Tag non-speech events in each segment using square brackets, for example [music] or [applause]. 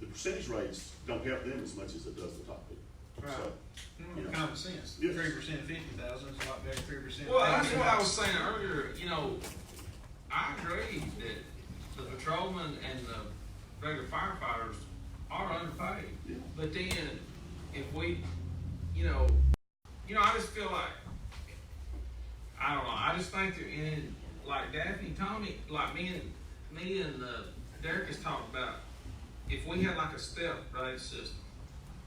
percentage rates don't help them as much as it does the top people. Right. So, Mm, Common sense, three Yes. percent of fifty thousand is a lot better than three percent. Well, that's what I was saying earlier, you know, I agree that the patrolmen and the regular firefighters are underpaid. Yeah. But then, if we, you know, you know, I just feel like, I don't know, I just think that in, like Daphne, Tony, like me and, me and, uh, Derek has talked about, if we had like a step rate system,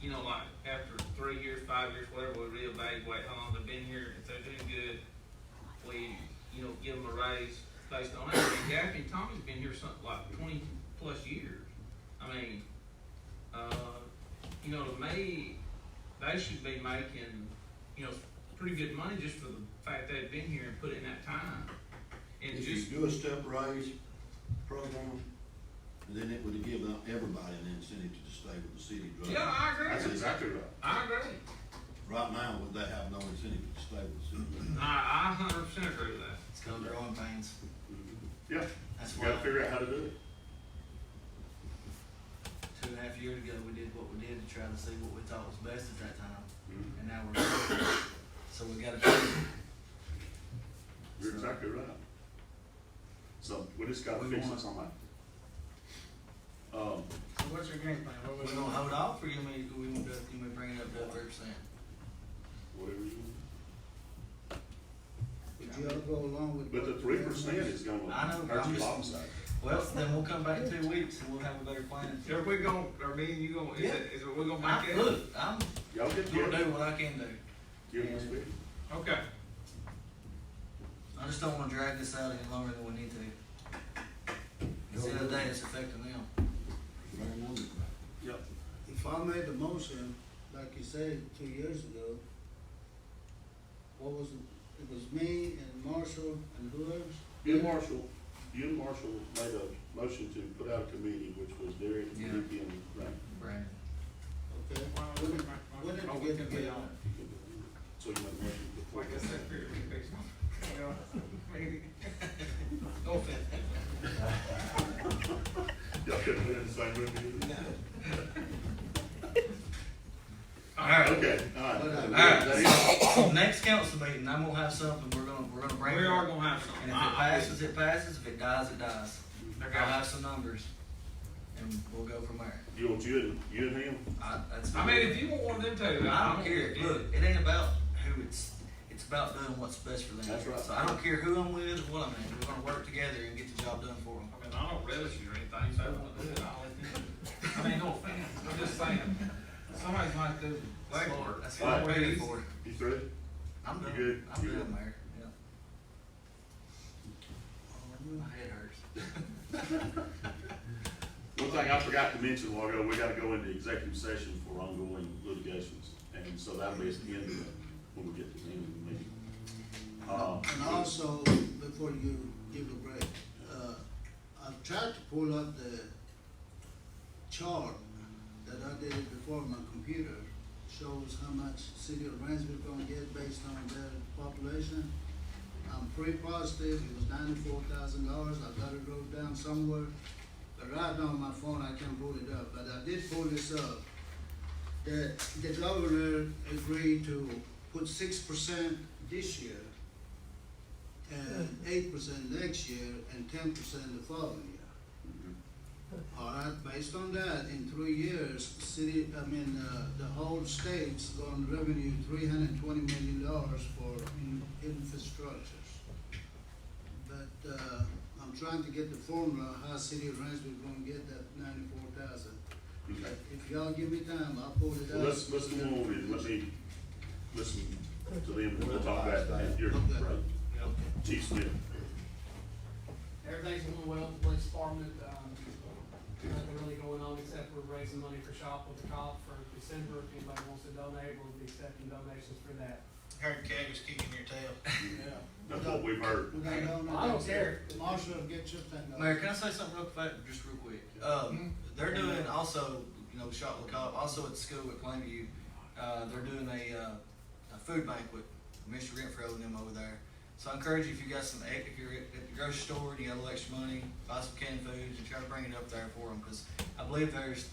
you know, like after three years, five years, whatever, we reevaluate how long they've been here, if they're doing good, we, you know, give them a raise based on that. And Daphne and Tommy's been here something like twenty plus years. I mean, uh, you know, to me, they should be making, you know, pretty good money just for the fact they've been here and put in that time. And If just, you do a step raise program, then it would give out everybody an incentive to stay with the city. right? yeah, I that's agree. exactly right. I agree. Right now, would they have no incentive to stay with the city? I, I hundred percent agree with that. It's called growing pains. Yeah, That's you why gotta figure out how to do it. two and a half years ago, we did what we did to try to see what we thought was best at that time, Mhm. and now we're, so we gotta change You're exactly right. So we just gotta We fix want- this on that. Um, So what's your game plan? What it. was We gonna hold off, or you may, we gonna, do- you may bring it up to three percent? whatever you want. Would you all go along with? But the what three Darren percent wants? is gonna I know, hurt but your I'm just- bottom side. Well, then we'll come back in two weeks and we'll have a better plan. Are we gonna, are me and you gonna, is it, is it, we gonna I, make it? look, I'm Y'all get gonna together, do what I can do, give us, Okay. I just don't wanna drag this out any longer than we need to. Cause the other day, it's affecting them. Very wonderful. yep, If I made the motion, like you said, two years ago, what was, it It was me and Marshall and who else? You and Marshall, you and Marshall made a motion to put out a committee, which was Derek, Yeah. Ricky, and Randy. Brandon. Okay, we didn't, Oh, we oh, didn't get together. So you made a motion before. Like I said, here, we fix it. You know, [laughs] maybe. No offense. Y'all couldn't be in the same room either. [laughs] All right. Okay, alright. All right. Next council meeting, I'm gonna have something, we're gonna, we're gonna We bring. it up. are gonna have some. And if it passes, it passes, if it dies, it dies. I I'll got have some numbers, and we'll go from there. You want you and, you and him? I, that's. you. I mean, if you want one of them two, I don't care, look, it ain't about who it's, it's about doing what's best for them. That's right. So I don't care who I'm with or what I'm in, we're gonna work together and get the job done for them. I mean, I don't relish you or anything, so I want to do it. I'll let them do it. I mean, no offense, I'm just saying, somebody's gonna have to do the That's legwork. what- That's what I'm Alright. ready for. You through? I'm You done, good? I'm You done, good? Mayor, yeah. My head hurts. One thing I forgot to mention a while ago, we gotta go into executive session for ongoing litigations, and so that'll be at the end of it, when we get to the end of the meeting. Uh, And also, before you give a break, uh, I've tried to pull up the chart that I did before on my computer, shows how much city of Rainsville gonna get based on their population. I'm pretty positive it was ninety-four thousand dollars, I got it wrote down somewhere, but right now on my phone, I can't pull it up, but I did pull this up. The, the governor agreed to put six percent this year, and eight percent next year, and ten percent the following year. Mm-hmm. All right, based on that, in three years, city, I mean, uh, the whole state's gonna revenue three hundred and twenty million dollars for in- infrastructures. But, uh, I'm trying to get the formula, how city of Rhinesville gonna get that ninety-four thousand. okay. If y'all give me time, I'll pull it out. Well, let's, let's go on and let me listen to them, and we'll talk about it at your, Okay. right, Chief Smith. Everything's going well at the police department, um, nothing really going on except we're raising money for shop with the cop for December, if anybody wants to donate, we'll be accepting donations for that. Heard Kay was kicking your tail. Yeah. That's what we've heard. We got down there. I don't care. Marshall, get your thing up. Mayor, can I say something real quick, just real quick? Um, they're doing also, you know, shot with cop, also at school at Plainview, uh, they're doing a, uh, a food banquet, Mr. Renfro and them over there. So I encourage you, if you got some, egg- if you're at at the grocery store and you got a little extra money, buy some canned foods and try to bring it up there for them, cause I believe there's